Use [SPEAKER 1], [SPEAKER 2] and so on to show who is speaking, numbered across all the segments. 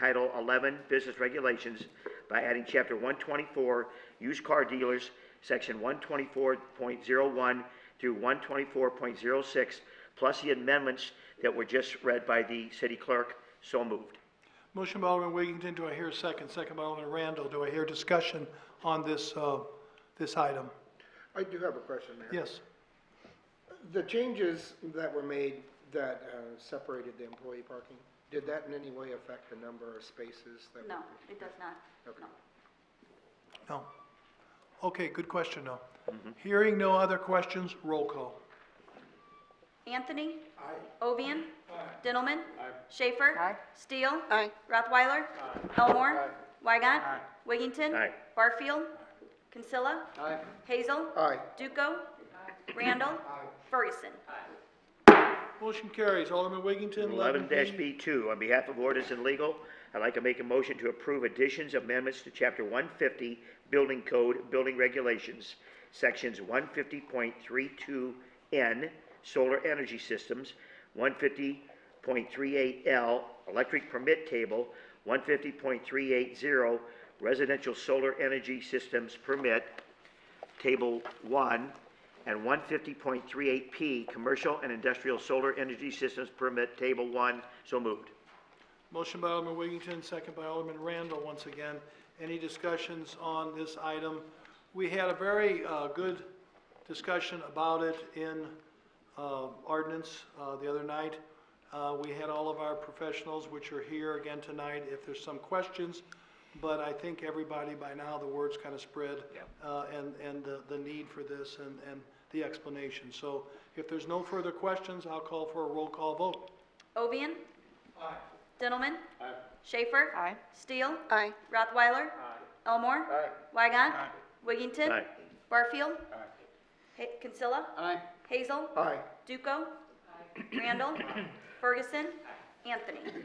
[SPEAKER 1] Title 11 Business Regulations by adding Chapter 124 Used Car Dealers, Section 124.01 through 124.06, plus the amendments that were just read by the city clerk. So moved.
[SPEAKER 2] Motion by Alderman Wiggington, do I hear a second? Second by Alderman Randall, do I hear discussion on this, uh, this item?
[SPEAKER 3] I do have a question, Mayor.
[SPEAKER 2] Yes,
[SPEAKER 3] The changes that were made that uh, separated the employee parking, did that in any way affect the number of spaces that?
[SPEAKER 4] No, it does not. No.
[SPEAKER 2] no. Okay, good question, no. Hearing no other questions, roll call.
[SPEAKER 4] Anthony? Ovian? Dintelman? Schaefer? Steele? Rothweiler? Elmore? Weigant? Wiggington?
[SPEAKER 1] Aye.
[SPEAKER 4] Barfield? Consilla?
[SPEAKER 3] Aye.
[SPEAKER 4] Hazel?
[SPEAKER 3] Aye.
[SPEAKER 4] Duco? Randall? Ferguson?
[SPEAKER 2] Motion carries, Alderman Wiggington, eleven
[SPEAKER 1] Eleven
[SPEAKER 2] B.
[SPEAKER 1] B two, on behalf of ordinance and legal, I'd like to make a motion to approve additions, amendments to chapter one fifty, building code, building regulations, sections one fifty point three two N, solar energy systems, one fifty point three eight L, electric permit table, one fifty point three eight zero, residential solar energy systems permit, Table 1, and 150.38P, Commercial and Industrial Solar Energy Systems Permit, Table 1, so moved.
[SPEAKER 2] Motion by Alderman Wiggington, second by Alderman Randall, once again. Any discussions on this item? We had a very, uh, good discussion about it in, uh, ordinance, uh, the other night. Uh, we had all of our professionals, which are here again tonight, if there's some questions. But I think everybody, by now, the word's kind of spread. Uh, and, and the, the need for this and, and the explanation. So if there's no further questions, I'll call for a roll call vote.
[SPEAKER 4] Ovian? Dintelman? Schaefer? Steele? Rothweiler? Elmore? Weigant? Wiggington?
[SPEAKER 1] Aye.
[SPEAKER 4] Barfield? Ha- Consilla? Hazel?
[SPEAKER 3] Aye.
[SPEAKER 4] Duco? Randall? Ferguson? Anthony?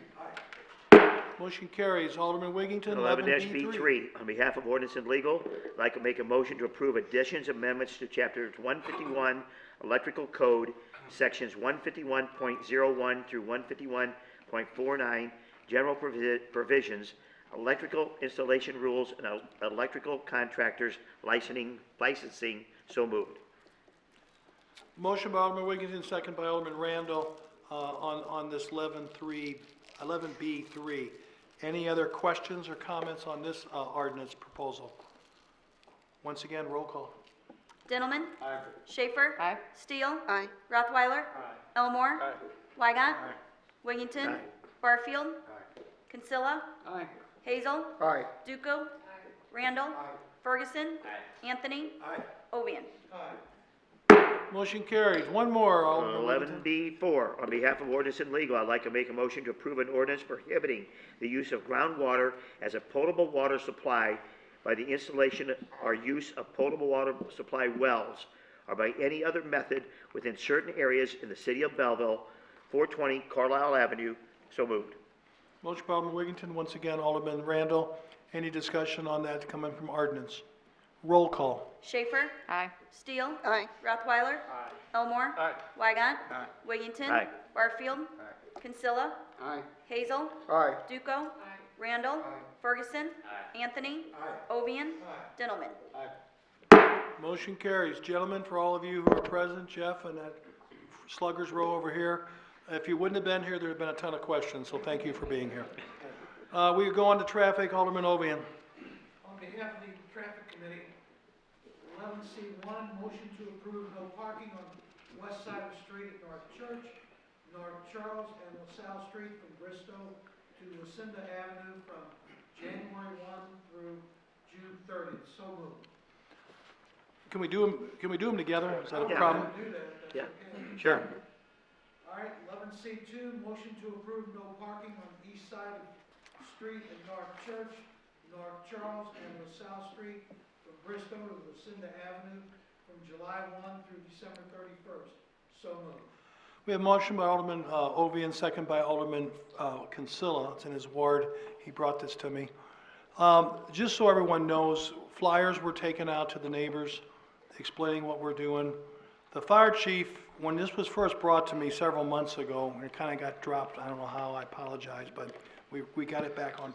[SPEAKER 2] Motion carries. Alderman Wiggington,
[SPEAKER 1] Eleven
[SPEAKER 2] eleven
[SPEAKER 1] B
[SPEAKER 2] B three.
[SPEAKER 1] three, on behalf of ordinance and legal, I'd like to make a motion to approve additions, amendments to chapter one fifty-one, electrical code, sections one fifty-one point zero one through one fifty-one point four nine, general provi- provisions, electrical installation rules, and el- electrical contractors licensing, licensing, so moved.
[SPEAKER 2] Motion by Alderman Wiggington, second by Alderman Randall, uh, on, on this eleven three, eleven B three. Any other questions or comments on this, uh, ordinance proposal? Once again, roll call.
[SPEAKER 4] Dintelman? Schaefer? Steele? Rothweiler? Elmore? Weigant? Wiggington? Barfield? Consilla? Hazel?
[SPEAKER 3] Aye.
[SPEAKER 4] Duco? Randall? Ferguson? Anthony? Ovian?
[SPEAKER 2] Motion carries. One more, Alderman
[SPEAKER 1] Eleven
[SPEAKER 2] Wiggington.
[SPEAKER 1] B four, on behalf of ordinance and legal, I'd like to make a motion to approve an ordinance prohibiting the use of groundwater as a potable water supply by the installation or use of potable water supply wells or by any other method within certain areas in the city of Belleville, four twenty Carlisle Avenue, so moved.
[SPEAKER 2] Motion by Alderman Wiggington, once again, Alderman Randall. Any discussion on that coming from ordinance? Roll call.
[SPEAKER 4] Schaefer? Steele? Rothweiler? Elmore? Weigant? Wiggington?
[SPEAKER 1] Aye.
[SPEAKER 4] Barfield? Consilla? Hazel?
[SPEAKER 3] Aye.
[SPEAKER 4] Duco? Randall? Ferguson? Anthony? Ovian? Dintelman?
[SPEAKER 2] Motion carries. Gentlemen, for all of you who are present, Jeff and that sluggers row over here, if you wouldn't have been here, there'd have been a ton of questions, so thank you for being here. Uh, we go on to traffic, Alderman Ovian.
[SPEAKER 5] On behalf of the traffic committee, eleven C one, motion to approve no parking on west side of the street at North Church, North Charles and LaSalle Street from Bristol to Lucinda Avenue from January one through June thirtieth. So moved.
[SPEAKER 2] Can we do them, can we do them together? Is that a
[SPEAKER 1] Yeah.
[SPEAKER 2] problem?
[SPEAKER 5] Do that, if
[SPEAKER 1] Yeah.
[SPEAKER 5] that's okay.
[SPEAKER 2] Sure.
[SPEAKER 5] All right, eleven C two, motion to approve no parking on the east side of the street at North Church, North Charles, and LaSalle Street from Bristol to Lucinda Avenue from July one through December thirty-first. So moved.
[SPEAKER 2] We have motion by Alderman, uh, Ovian, second by Alderman, uh, Consilla. It's in his ward. He brought this to me. Um, just so everyone knows, flyers were taken out to the neighbors explaining what we're doing. The fire chief, when this was first brought to me several months ago, and it kind of got dropped, I don't know how, I apologize, but we, we got it back on